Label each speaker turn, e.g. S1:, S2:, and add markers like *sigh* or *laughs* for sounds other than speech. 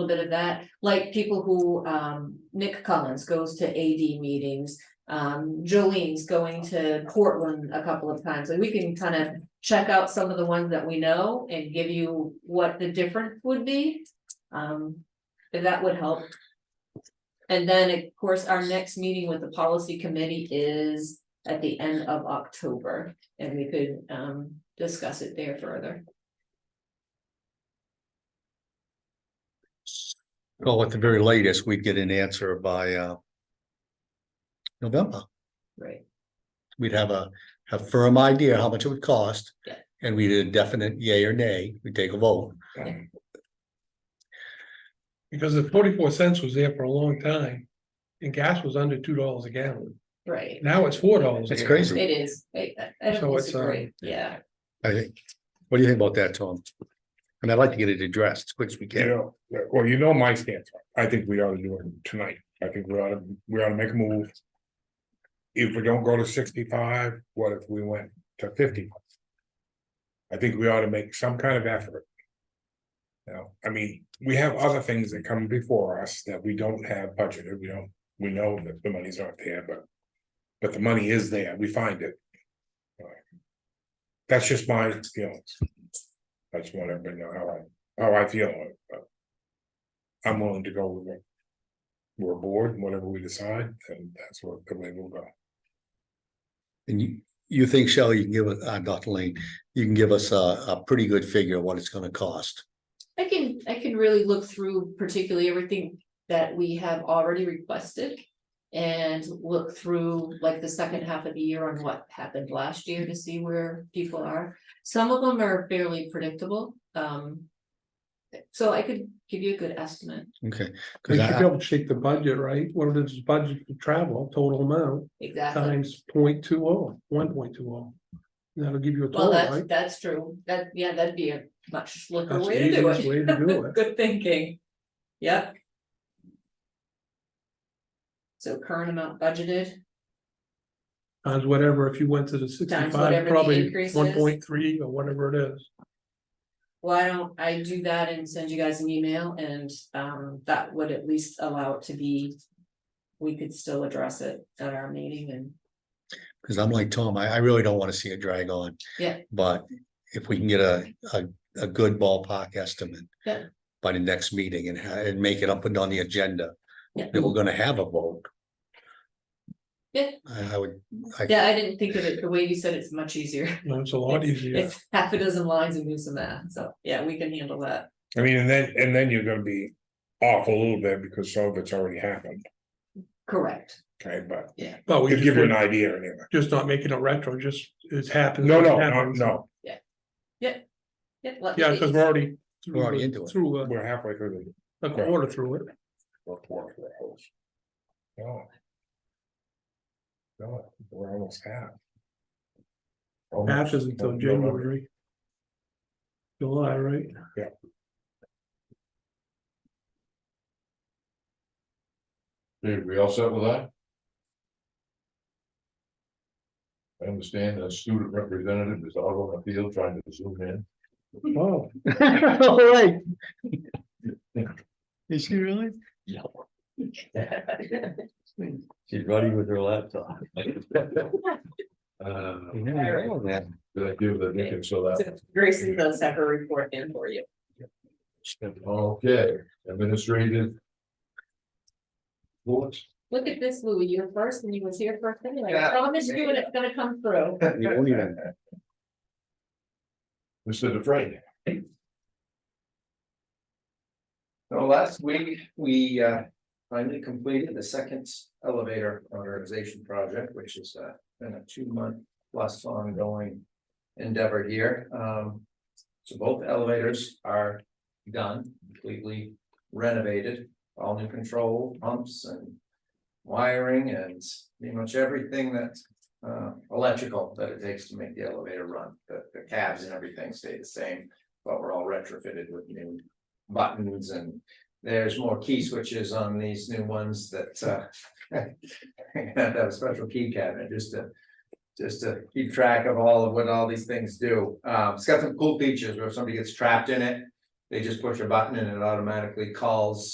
S1: little bit of that, like people who, um, Nick Collins goes to AD meetings. Um, Jolene's going to Portland a couple of times, and we can kind of check out some of the ones that we know and give you what the difference would be. Um, if that would help. And then, of course, our next meeting with the policy committee is at the end of October, and we could, um, discuss it there further.
S2: Well, at the very latest, we'd get an answer by uh. November,
S1: Right.
S2: we'd have a, a firm idea how much it would cost.
S1: Yeah.
S2: And we'd a definite yay or nay, we'd take a vote.
S3: Because the forty-four cents was there for a long time, and gas was under two dollars a gallon.
S1: Right,
S3: Now it's four dollars.
S2: It's crazy.
S1: it is, I, I
S3: So
S1: don't
S3: it's, um,
S1: disagree, yeah.
S2: I think, what do you think about that, Tom? And I'd like to get it addressed as quick as we can.
S4: Yeah, yeah, well, you know my stance. I think we ought to do it tonight. I think we ought to, we ought to make a move. If we don't go to sixty-five, what if we went to fifty? I think we ought to make some kind of effort. You know, I mean, we have other things that come before us that we don't have budgeted. We don't, we know that the money's not there, but. But the money is there. We find it. That's just my feelings. I just want everybody to know how I how Oh, I feel. but I'm willing to go with it. We're bored, whatever we decide, and that's what the way we'll go.
S2: And you, you think, Shelley, you can give us, uh, Dr. Lane, you can give us a, a pretty good figure of what it's gonna cost.
S1: I can, I can really look through particularly everything that we have already requested. And look through like the second half of the year on what happened last year to see where people are. Some of them are fairly predictable, um. So I could give you a good estimate,
S2: Okay. 'Cause
S3: We should be
S2: I-
S3: able to shake the budget, right? What is the budget for travel, total amount,
S1: exactly.
S3: times point two oh, one point two oh. That'll give you a
S1: Well,
S3: total,
S1: that's,
S3: right?
S1: that's true. That, yeah, that'd be a much slicker
S3: That's the
S1: way to do
S3: easiest
S1: it.
S3: way to do
S1: *laughs*
S3: it.
S1: Good thinking. Yep. So current amount budgeted.
S3: Times whatever, if you went to the
S1: whatever
S3: sixty-five,
S1: the
S3: probably
S1: increase is.
S3: one point three or whatever it is.
S1: Why don't I do that and send you guys an email and um that would at least allow it to be. We could still address it at our meeting and
S2: Cause I'm like Tom, I, I really don't wanna see it drag on.
S1: Yeah.
S2: But if we can get a, a, a good ballpark estimate.
S1: Yeah.
S2: By the next meeting and, ha- and make it up and on the agenda.
S1: Yeah.
S2: That we're gonna have a vote.
S1: Yeah.
S2: I I would, I,
S1: yeah, I didn't think of it the way you said it's much easier.
S3: You know, It's a lot easier.
S1: It's half a dozen lines and do some math, so yeah, we can handle that.
S4: I mean, and then, and then you're gonna be off a little bit because some of it's already happened,
S1: Correct.
S4: okay, but
S3: But we
S4: we give you an
S3: Oh, just,
S4: idea anyway.
S3: just not making it retro, just it's happened.
S4: No,
S3: it
S4: no, no,
S3: happens.
S4: no,
S1: Yeah, let
S3: Yeah,
S1: me-
S3: because we're already. through
S2: We're already
S3: the-
S2: into it.
S3: Through a-
S4: we're halfway through
S3: a quarter through it.
S4: the report for the host. No. No, we're almost half. Almost.
S3: Half is until January. July, right?
S5: Dave, we all set with that? I understand a student representative is out on the field trying to zoom in.
S2: *laughs*
S3: Oh,
S2: Right. Is she really? *laughs*
S5: She's running with her
S2: *laughs*
S5: laptop. Uh, did I give the Dickens so that?
S1: So Gracie does have her report in for you.
S5: Okay, administrative. What?
S1: Look at this, Louis, you were first and you was here first anyway. I promise you and it's gonna come through.
S5: Mr. DeFrey.
S6: So last week, we uh, finally completed the second elevator modernization project, which has uh, been a two-month plus ongoing endeavor here. Um, So both elevators are done, completely renovated, all new control pumps and wiring and pretty much everything that uh, electrical that it takes to make the elevator run. The the cabs and everything stay the same, but we're all retrofitted with new buttons and there's more key switches on these new ones that uh. *laughs* I Have a special key cabinet just to, just to keep track of all of what all these things do. Um, it's got some cool features where if somebody gets trapped in it. They just push a button and it automatically calls